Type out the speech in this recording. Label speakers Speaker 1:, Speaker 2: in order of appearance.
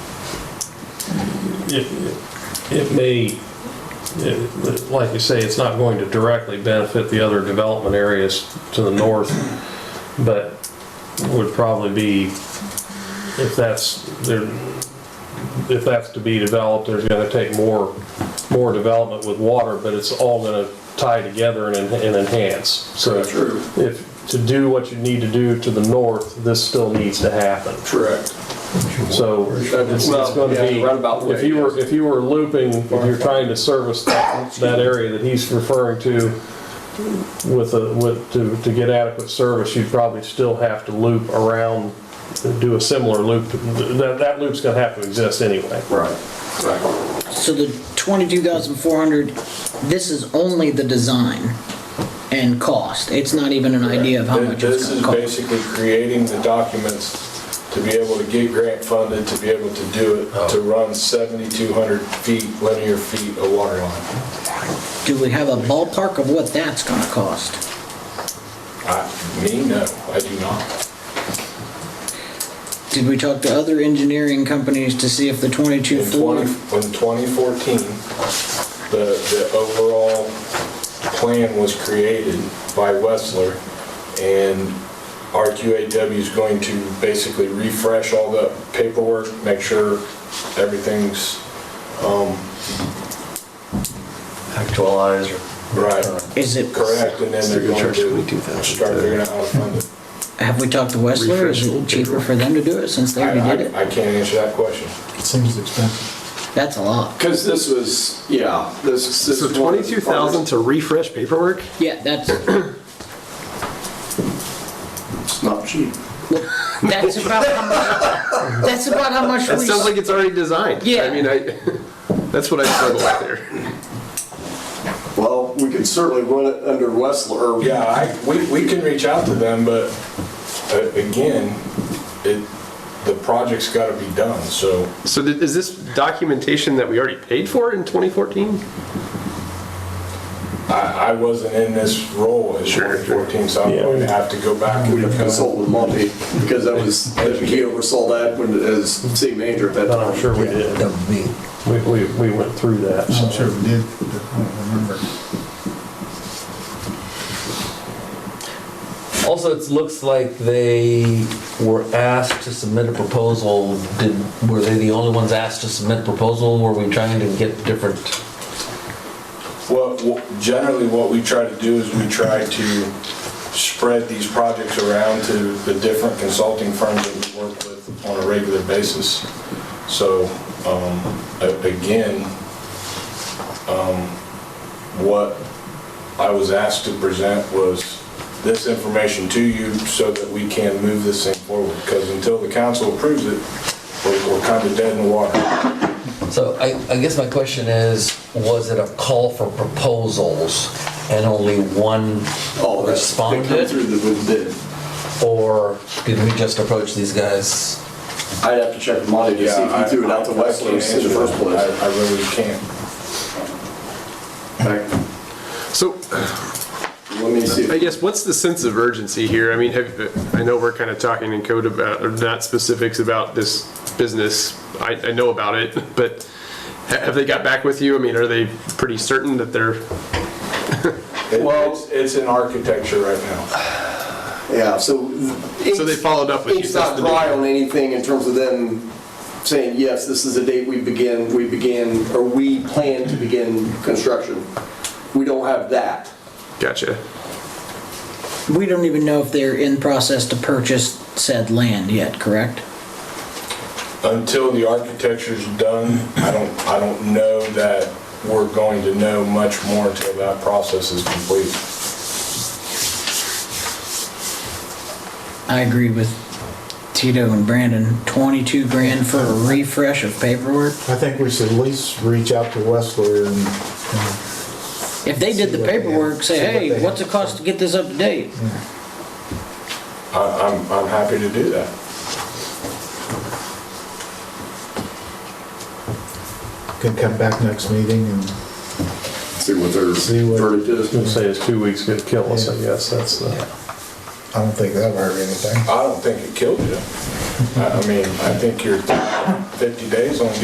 Speaker 1: it, it may, it- like you say, it's not going to directly benefit the other development areas to the north, but would probably be, if that's, there, if that's to be developed, there's gonna take more, more development with water, but it's all gonna tie together and en- and enhance, so.
Speaker 2: True.
Speaker 1: If, to do what you need to do to the north, this still needs to happen.
Speaker 2: Correct.
Speaker 1: So it's, it's
Speaker 2: Well,
Speaker 1: gonna
Speaker 2: yeah,
Speaker 1: be,
Speaker 2: roundabout way,
Speaker 1: if you were, if you were looping, if you're trying to service that, that area that he's referring to with a, with, to, to get adequate service, you'd probably still have to loop around, do a similar loop. That, that loop's gonna have to exist anyway.
Speaker 2: Right. Right.
Speaker 3: So the twenty-two thousand four hundred, this is only the design and cost. It's not even an idea of how much it's
Speaker 4: This is
Speaker 3: gonna cost.
Speaker 4: basically creating the documents to be able to get grant funded, to be able to do it, to run 7,200 feet, linear feet of water line.
Speaker 3: Do we have a ballpark of what that's gonna cost?
Speaker 4: I, me, no, I do not.
Speaker 3: Did we talk to other engineering companies to see if the twenty-two
Speaker 4: In 20,
Speaker 3: four?
Speaker 4: in 2014, the, the overall plan was created by Westler, and RQAW is going to basically refresh all the paperwork, make sure everything's
Speaker 2: Actualize.
Speaker 4: right.
Speaker 3: Is it,
Speaker 4: Correct, and then they're going to
Speaker 2: 22,000.
Speaker 4: start figuring out how to fund it.
Speaker 3: have we talked to Westler? Is it cheaper for them to do it since they
Speaker 4: I-
Speaker 3: already did
Speaker 4: I-
Speaker 3: it?
Speaker 4: I can't answer that question.
Speaker 5: Seems expensive.
Speaker 3: That's a lot.
Speaker 2: Because this was, yeah, this. this
Speaker 5: So
Speaker 2: was one of the
Speaker 5: twenty-two thousand
Speaker 2: first-
Speaker 5: to refresh paperwork?
Speaker 3: Yeah, that's,
Speaker 2: It's not cheap.
Speaker 3: that's about how much, that's about how much we.
Speaker 5: That sounds like it's already designed.
Speaker 3: Yeah.
Speaker 5: I mean, I, that's what I struggle with there.
Speaker 6: Well, we could certainly run it under Westler, or
Speaker 4: Yeah, I, we, we can reach out to them, but uh, again, it, the project's got to be done, so
Speaker 5: So did- is this documentation that we already paid for in twenty fourteen?
Speaker 4: I, I wasn't in this role in
Speaker 5: Sure, sure.
Speaker 4: 2014, so I'm
Speaker 1: Yeah.
Speaker 4: going to have to go back and
Speaker 6: we'd have
Speaker 4: become.
Speaker 6: consulted Monty, because that was, he oversaw that when, as city manager at that
Speaker 1: And
Speaker 6: time.
Speaker 1: I'm sure we did. We, we, we went through that. so.
Speaker 5: I'm sure we did, I don't remember.
Speaker 7: Also, it looks like they were asked to submit a proposal. Did, were they the only ones asked to submit a proposal? Were we trying to get different?
Speaker 4: What, what- generally, what we try to do is we try to spread these projects around to the different consulting firms that we work with on a regular basis. So, um, a- again, um, what I was asked to present was this information to you so that we can move this thing forward. Because until the council approves it, we're- we're kind of dead in the water.
Speaker 7: So I, I guess my question is, was it a call for proposals and only one
Speaker 6: All that, that come through the,
Speaker 7: responded?
Speaker 6: with bid.
Speaker 7: Or did we just approach these guys?
Speaker 6: I'd have to check with Monty to see if he threw it out to
Speaker 4: I- I- I
Speaker 6: Westler in
Speaker 4: can't answer
Speaker 6: the first
Speaker 4: that.
Speaker 6: place.
Speaker 4: I I really can't.
Speaker 5: So
Speaker 6: Let me see.
Speaker 5: I guess what's the sense of urgency here? I mean, have, I know we're kind of talking in code about, or not specifics about this business. I, I know about it, but ha- have they got back with you? I mean, are they pretty certain that they're,
Speaker 4: It-
Speaker 6: Well-
Speaker 4: It's, it's in architecture right now.
Speaker 6: Yeah, so.
Speaker 5: so they followed up with you?
Speaker 6: It's
Speaker 5: that's
Speaker 6: not
Speaker 5: the
Speaker 6: dry
Speaker 5: deal.
Speaker 6: on anything in terms of them saying, yes, this is the date we begin, we begin, or we plan to begin construction. We don't have that.
Speaker 5: Gotcha.
Speaker 3: We don't even know if they're in process to purchase said land yet, correct?
Speaker 4: Until the architecture's done, I don't, I don't know that we're going to know much more until that process is complete.
Speaker 3: I agree with Tito and Brandon, twenty-two grand for a refresh of paperwork.
Speaker 8: I think we should at least reach out to Westler and,
Speaker 3: If they did the paperwork, say,
Speaker 8: See what they
Speaker 3: hey,
Speaker 8: have.
Speaker 3: what's it cost to get this up to date?
Speaker 4: I, I'm, I'm happy to do that.
Speaker 8: can come back next meeting and
Speaker 6: See what their
Speaker 8: See what-
Speaker 6: verdict is.
Speaker 1: I'd say it's two weeks gonna kill us, I guess, that's the.
Speaker 8: I don't think that'll hurt anything.
Speaker 4: I don't think it killed you. I I mean, I think you're 50 days on